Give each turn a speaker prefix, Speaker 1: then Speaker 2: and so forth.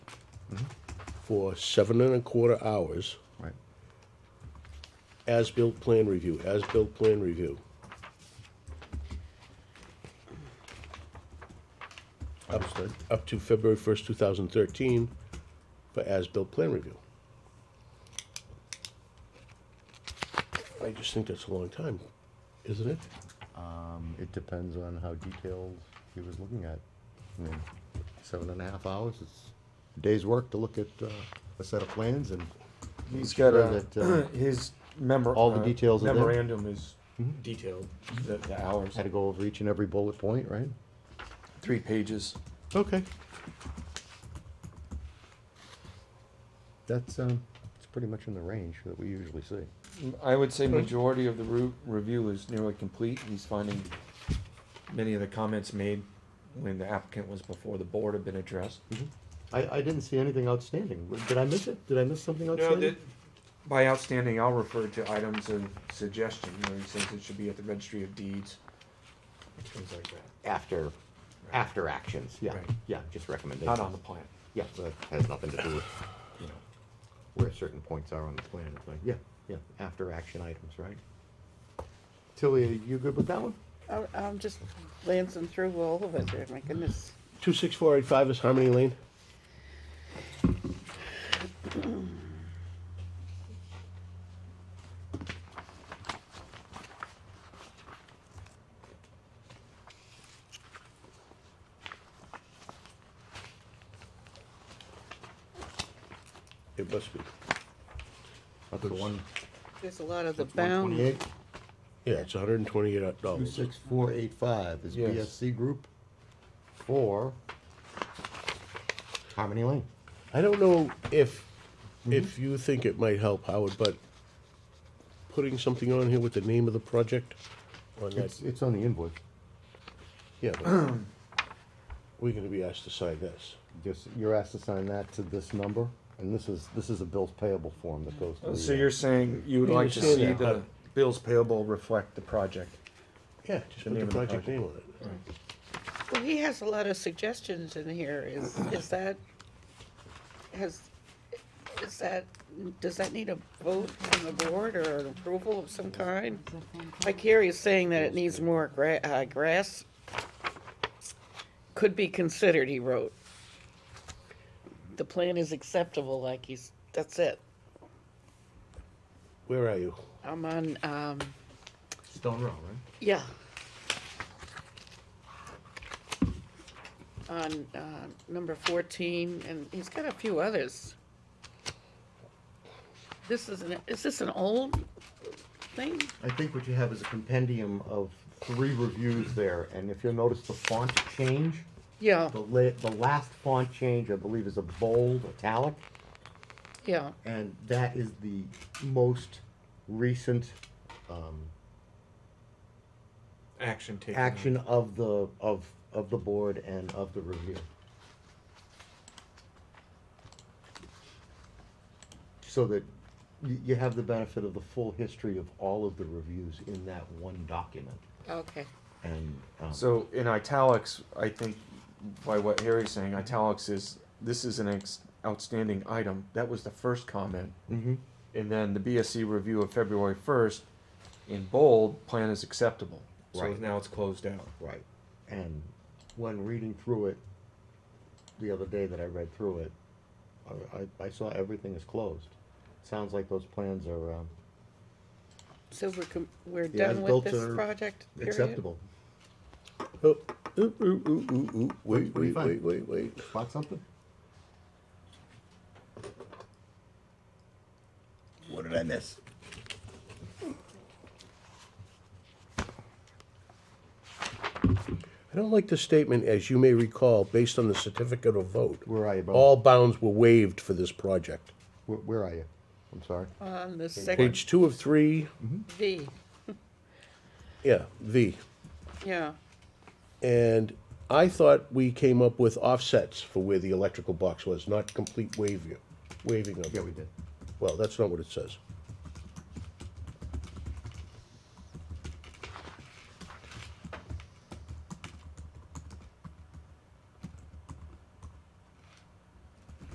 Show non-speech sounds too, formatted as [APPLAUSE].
Speaker 1: for seven and a quarter hours,
Speaker 2: Right.
Speaker 1: as-built plan review, as-built plan review. Up-
Speaker 2: Understood.
Speaker 1: Up to February first, two thousand thirteen, for as-built plan review. I just think that's a long time, isn't it?
Speaker 2: Um, It depends on how detailed he was looking at. I mean, seven and a half hours, it's a day's work to look at uh, a set of plans and make
Speaker 3: He's got
Speaker 2: sure
Speaker 3: a,
Speaker 2: that, uh,
Speaker 3: [CLEARS THROAT] his memor-
Speaker 2: all the
Speaker 3: uh,
Speaker 2: details are there. Mm-hmm.
Speaker 3: Memorandum is detailed, the, the hours,
Speaker 2: Had to go over each and every bullet point, right?
Speaker 3: three pages.
Speaker 2: Okay. That's, um, it's pretty much in the range that we usually see.
Speaker 3: I would say majority of the root review is nearly complete. He's finding many of the comments made when the applicant was before the board have been addressed.
Speaker 2: Mm-hmm. I, I didn't see anything outstanding. Did I miss it? Did I miss something
Speaker 3: No,
Speaker 2: outstanding?
Speaker 3: that, by outstanding, I'll refer to items of suggestion, where he says it should be at the registry of deeds, things like that,
Speaker 4: after, after actions, yeah,
Speaker 3: Right.
Speaker 4: yeah, just recommendations.
Speaker 3: not on the plan,
Speaker 4: Yeah, that has nothing to do with
Speaker 3: you know.
Speaker 4: where certain points are on the plan, it's like, yeah, yeah, after action items, right? Tilly, are you good with that one?
Speaker 5: I- I'm just glancing through all of it there, my goodness.
Speaker 1: Two six four eight five is Harmony Lane. It must be,
Speaker 2: That's the one,
Speaker 5: There's a lot of the
Speaker 2: That's 128.
Speaker 5: bound,
Speaker 1: yeah, it's hundred and twenty-eight
Speaker 2: Two
Speaker 1: dollars.
Speaker 2: six four eight five is
Speaker 3: Yes.
Speaker 2: BSC Group for Harmony Lane.
Speaker 1: I don't know if, if you think it might help, Howard, but putting something on here with the name of the project on that,
Speaker 2: It's, it's on the invoice.
Speaker 1: yeah. [CLEARS THROAT] but We're gonna be asked to sign this.
Speaker 2: Just, you're asked to sign that to this number, and this is, this is a bills payable form that goes to the.
Speaker 3: Oh, So you're saying you would
Speaker 1: You
Speaker 3: like to
Speaker 1: understand
Speaker 3: see
Speaker 1: that,
Speaker 3: the bills payable reflect the project?
Speaker 1: Yeah, just
Speaker 3: The
Speaker 1: put
Speaker 3: name
Speaker 1: the
Speaker 3: of the
Speaker 1: project
Speaker 3: project.
Speaker 1: name on it.
Speaker 5: well, he has a lot of suggestions in here, is, is that, has, is that, does that need a vote from the board or an approval of some kind? Like here he's saying that it needs more gra- uh, grass, could be considered, he wrote. The plan is acceptable, like he's, that's it.
Speaker 1: Where are you?
Speaker 5: I'm on, um,
Speaker 2: Stone Row, right?
Speaker 5: Yeah. On uh, number 14, and he's got a few others. This is an, is this an old thing?
Speaker 2: I think what you have is a compendium of three reviews there, and if you'll notice the font change,
Speaker 5: Yeah,
Speaker 2: the la, the last font change, I believe, is a bold italic,
Speaker 5: yeah,
Speaker 2: and that is the most recent, um,
Speaker 3: Action taken.
Speaker 2: action of the, of, of the board and of the review. So that you, you have the benefit of the full history of all of the reviews in that one document,
Speaker 5: okay.
Speaker 2: and, um,
Speaker 3: So in italics, I think by what Harry's saying, italics is, this is an ex- outstanding item. That was the first comment.
Speaker 1: Mm-hmm.
Speaker 2: Mhm.
Speaker 3: And then the BSC review of February first, in bold, plan is acceptable. So
Speaker 2: Right.
Speaker 3: now it's closed out.
Speaker 2: Right. And when reading through it, the other day that I read through it, I, I, I saw everything is closed. Sounds like those plans are, um,
Speaker 5: So we're, com- we're
Speaker 2: Yeah,
Speaker 5: done with
Speaker 2: built
Speaker 5: this
Speaker 2: are
Speaker 5: project, period?
Speaker 2: acceptable.
Speaker 1: Oh, ooh, ooh, ooh, ooh, ooh, wait,
Speaker 2: What do you
Speaker 1: wait,
Speaker 2: find?
Speaker 1: wait, wait, wait.
Speaker 2: Spot something? What did I miss?
Speaker 1: I don't like the statement, as you may recall, based on the certificate of vote.
Speaker 2: Where are you, Bob?
Speaker 1: All bounds were waived for this project.
Speaker 2: Where, where are you? I'm sorry.
Speaker 5: On the second
Speaker 1: Page two of three,
Speaker 5: V,
Speaker 1: yeah, V.
Speaker 5: yeah.
Speaker 1: And I thought we came up with offsets for where the electrical box was, not complete waving, waving of it.
Speaker 2: did.
Speaker 1: Well, that's not what it says.